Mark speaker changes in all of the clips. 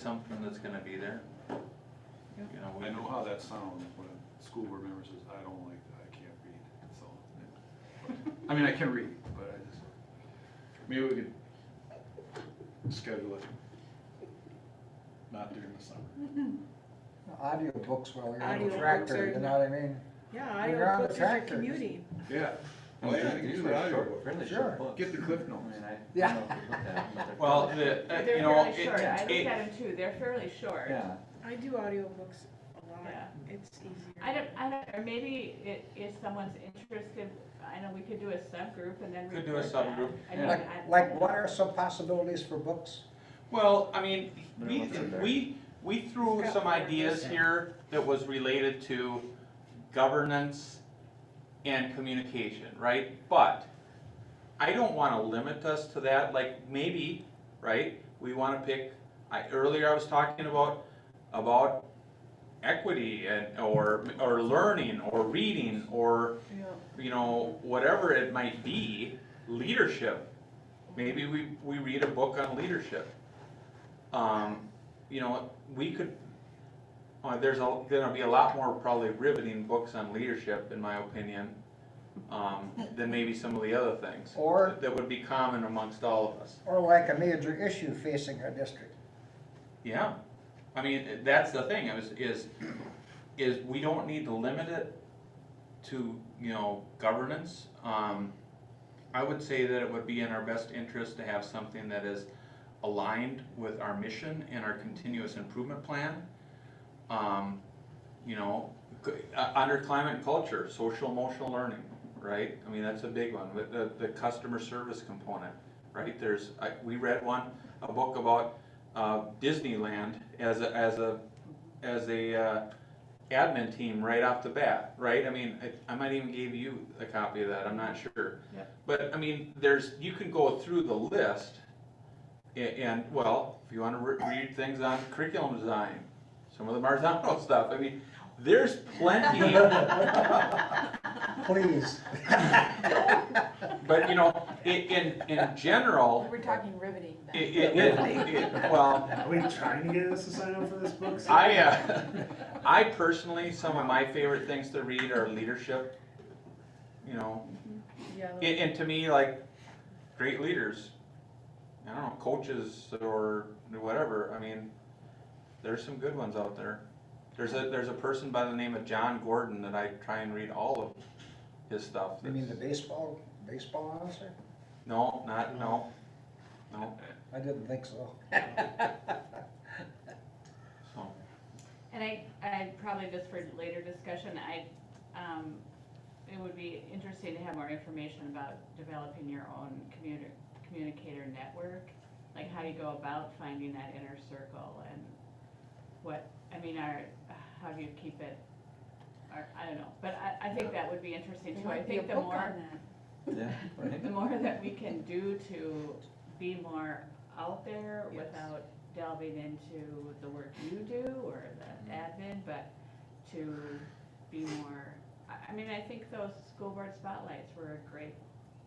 Speaker 1: something that's gonna be there. You know, we-
Speaker 2: I know how that sounds when a school board member says, I don't like, that, I can't read, so. I mean, I can read, but I just, maybe we could schedule it. Not during the summer.
Speaker 3: Audiobooks while you're on
Speaker 4: Audiobooks
Speaker 3: a tractor,
Speaker 4: are-
Speaker 3: you know what I mean?
Speaker 4: Yeah,
Speaker 3: You're on the
Speaker 4: audiobooks are
Speaker 3: tractor.
Speaker 4: commuting.
Speaker 2: Yeah.
Speaker 5: Oh, yeah, you can use
Speaker 2: Short-
Speaker 5: audio. Fairly
Speaker 3: Sure.
Speaker 5: short books.
Speaker 2: Get the cliff
Speaker 5: I
Speaker 2: notes.
Speaker 5: mean, I don't
Speaker 3: Yeah.
Speaker 5: know if you looked at 'em, but they're
Speaker 1: Well,
Speaker 5: fairly
Speaker 1: the,
Speaker 5: short.
Speaker 1: uh,
Speaker 6: They're
Speaker 1: you know,
Speaker 6: fairly
Speaker 1: it-
Speaker 6: short. I looked
Speaker 1: it,
Speaker 6: at them too. They're fairly short.
Speaker 5: Yeah,
Speaker 4: I do audiobooks a lot.
Speaker 6: Yeah.
Speaker 4: It's easier.
Speaker 6: I don't, I don't, or maybe it, if someone's interested, I know we could do a subgroup and then.
Speaker 1: Could do a
Speaker 6: report back.
Speaker 1: subgroup.
Speaker 6: I mean,
Speaker 5: Yeah.
Speaker 3: Like,
Speaker 6: I-
Speaker 3: like what are some possibilities for books?
Speaker 1: well, I mean,
Speaker 5: They're
Speaker 1: we,
Speaker 5: what's in there.
Speaker 1: we, we threw
Speaker 4: It's got
Speaker 1: some
Speaker 4: more
Speaker 1: ideas
Speaker 4: person.
Speaker 1: here that was related to governance and communication, right? But I don't wanna limit us to that, like, maybe, right, we wanna pick, I, earlier I was talking about, about equity and, or, or learning, or reading, or
Speaker 4: Yeah.
Speaker 1: you know, whatever it might be, leadership. Maybe we, we read a book on leadership. Um, you know, we could, uh, there's a, gonna be a lot more probably riveting books on leadership, in my opinion, um, than maybe some of the other things.
Speaker 3: Or-
Speaker 1: That would be common amongst all of us.
Speaker 3: Or like a major issue facing our district?
Speaker 1: Yeah, I mean, that's the thing, is, is, is we don't need to limit it to, you know, governance. Um, I would say that it would be in our best interest to have something that is aligned with our mission and our continuous improvement plan. Um, you know, c- uh, under climate and culture, social emotional learning, right? I mean, that's a big one, with the, the customer service component, right? There's, I, we read one, a book about, uh, Disneyland as a, as a, as a, uh, admin team right off the bat, right? I mean, I, I might even give you a copy of that, I'm not sure.
Speaker 6: Yeah.
Speaker 1: But, I mean, there's, you can go through the list a- and, well, if you wanna re- read things on curriculum design, some of the Marzano stuff, I mean, there's plenty,
Speaker 3: Please.
Speaker 1: but you know, i- in, in general,
Speaker 7: We're talking riveting
Speaker 1: i- i-
Speaker 7: then.
Speaker 1: it- it- well,
Speaker 8: Are we trying to get us to sign up for this book?
Speaker 1: I, uh, I personally, some of my favorite things to read are leadership, you know,
Speaker 4: Yeah.
Speaker 1: and, and to me, like, great leaders, I don't know, coaches or whatever, I mean, there's some good ones out there. There's a, there's a person by the name of John Gordon that I try and read all of his stuff.
Speaker 3: You mean the
Speaker 1: that's-
Speaker 3: baseball, baseball announcer?
Speaker 1: No, not, no, no,
Speaker 3: I didn't think so.
Speaker 1: so,
Speaker 6: And I, I probably just for later discussion, I, um, it would be interesting to have more information about developing your own commuter, communicator network. Like how you go about finding that inner circle and what, I mean, are, how do you keep it? Or, I don't know, but I, I think that would be interesting
Speaker 7: There
Speaker 6: too. I
Speaker 7: might be a
Speaker 6: think the
Speaker 7: book on
Speaker 6: more,
Speaker 7: that.
Speaker 5: yeah, right.
Speaker 6: the more that we can do to be more out there
Speaker 5: Yes.
Speaker 6: without delving into the work you do or the admin, but to be more, I, I mean, I think those school board spotlights were a great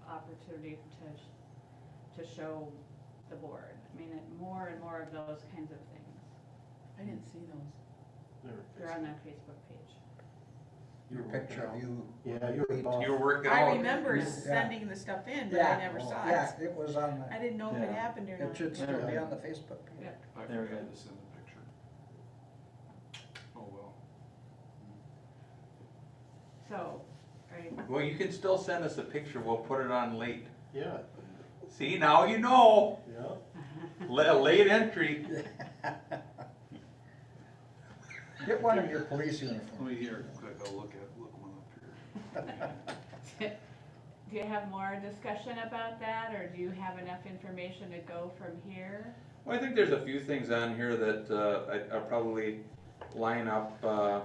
Speaker 6: opportunity to, sh- to show the board. I mean, it- more and more of those kinds of things.
Speaker 7: I didn't see those.
Speaker 6: They're on that Facebook page.
Speaker 3: Your picture of you.
Speaker 8: Yeah, you were
Speaker 1: you were working
Speaker 4: I
Speaker 1: all,
Speaker 4: remember
Speaker 3: Yeah.
Speaker 4: sending the stuff in, but
Speaker 3: Yeah.
Speaker 4: I never saw it.
Speaker 3: Yeah, it was on
Speaker 4: I didn't know if it
Speaker 5: Yeah.
Speaker 4: happened or
Speaker 3: the,
Speaker 4: not.
Speaker 3: it should still be on the Facebook page.
Speaker 6: Yeah.
Speaker 2: I
Speaker 5: There we
Speaker 2: forgot
Speaker 5: go.
Speaker 2: to send the picture. Oh, well.
Speaker 6: So, are you,
Speaker 1: well, you can still send us a picture, we'll put it on late.
Speaker 8: Yeah,
Speaker 1: See, now you know.
Speaker 8: yeah.
Speaker 1: La- Late entry.
Speaker 3: Get one of your police
Speaker 2: Let
Speaker 3: uniforms.
Speaker 2: me here, quick, I'll look at, look one up here.
Speaker 6: do you have more discussion about that or do you have enough information to go from here?
Speaker 1: Well, I think there's a few things on here that uh, I- I'll probably line up. uh,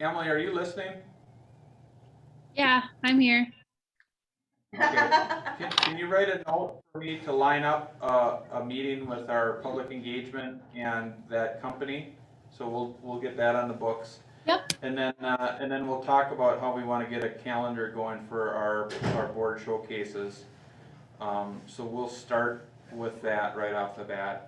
Speaker 1: Emily, are you listening?
Speaker 9: Yeah, I'm here.
Speaker 1: Okay. Can can you write a note for me to line up uh, a meeting with our public engagement and that company? So we'll, we'll get that on the books.
Speaker 9: Yep.
Speaker 1: And then, uh, and then we'll talk about how we want to get a calendar going for our, our board showcases. Um, So we'll start with that right off the bat.